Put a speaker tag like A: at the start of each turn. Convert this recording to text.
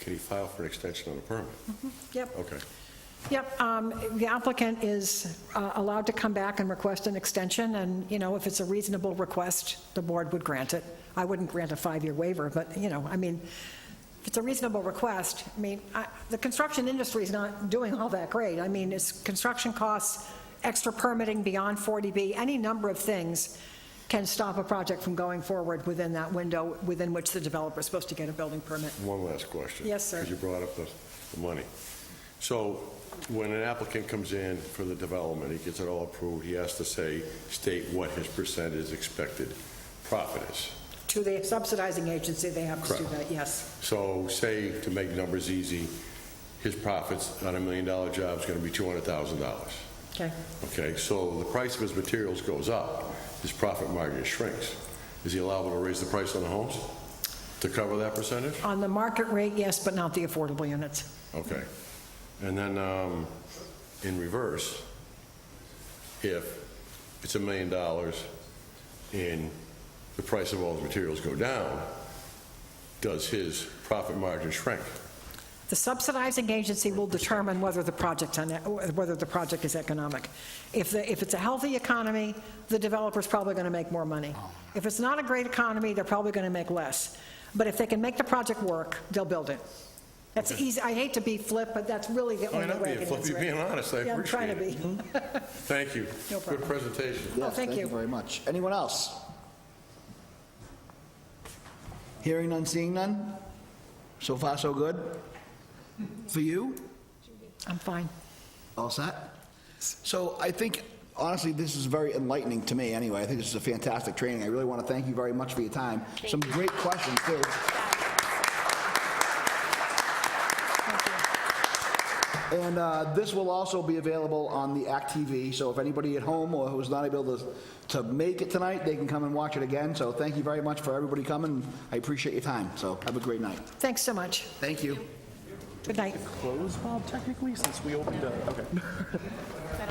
A: Can he file for an extension on a permit?
B: Yep.
A: Okay.
B: Yep, um, the applicant is uh, allowed to come back and request an extension, and, you know, if it's a reasonable request, the board would grant it. I wouldn't grant a five-year waiver, but, you know, I mean, if it's a reasonable request, I mean, I- the construction industry is not doing all that great. I mean, it's construction costs, extra permitting beyond 40B, any number of things can stop a project from going forward within that window within which the developer is supposed to get a building permit.
A: One last question.
B: Yes, sir.
A: Because you brought up the, the money. So when an applicant comes in for the development, he gets it all approved, he has to say, state what his percent is expected profit is.
B: To the subsidizing agency, they have to do
A: Correct.
B: that, yes.
A: So say, to make numbers easy, his profits on a million-dollar job is going to be $200,000.
B: Okay.
A: Okay, so the price of his materials goes up, his profit margin shrinks. Is he allowable to raise the price on the homes to cover that percentage?
B: On the market rate, yes, but not the affordable units.
A: Okay. And then, um, in reverse, if it's a million dollars and the price of all the materials go down, does his profit margin shrink?
B: The subsidizing agency will determine whether the project, e, whether the project is economic. If, the- if it's a healthy economy, the developer's probably going to make more money. If it's not a great economy, they're probably going to make less. But if they can make the project work, they'll build it. That's easy, I hate to be flip, but that's really the
A: Oh,
B: only
A: you're not
B: way I
A: being
B: can
A: flippy,
B: answer
A: you're
B: it.
A: being honest, I
B: Yeah, I'm
A: appreciate
B: trying
A: it.
B: to be.
A: Thank you.
B: No
A: Good
B: problem.
A: presentation.
B: Oh,
C: Yes,
B: thank you.
C: very much. Anyone else? Hearing none, seeing none? So far, so good? For you?
B: I'm fine.
C: All set? So I think, honestly, this is very enlightening to me, anyway. I think this is a fantastic training. I really want to thank you very much for your time. Some great questions, too. And uh, this will also be available on the Act TV, so if anybody at home or who's not able to, to make it tonight, they can come and watch it again. So thank you very much for everybody coming. I appreciate your time, so have a great night.
B: Thanks so much.
C: Thank you.
B: Good night.
D: closed, Bob, technically, since we opened up? Okay.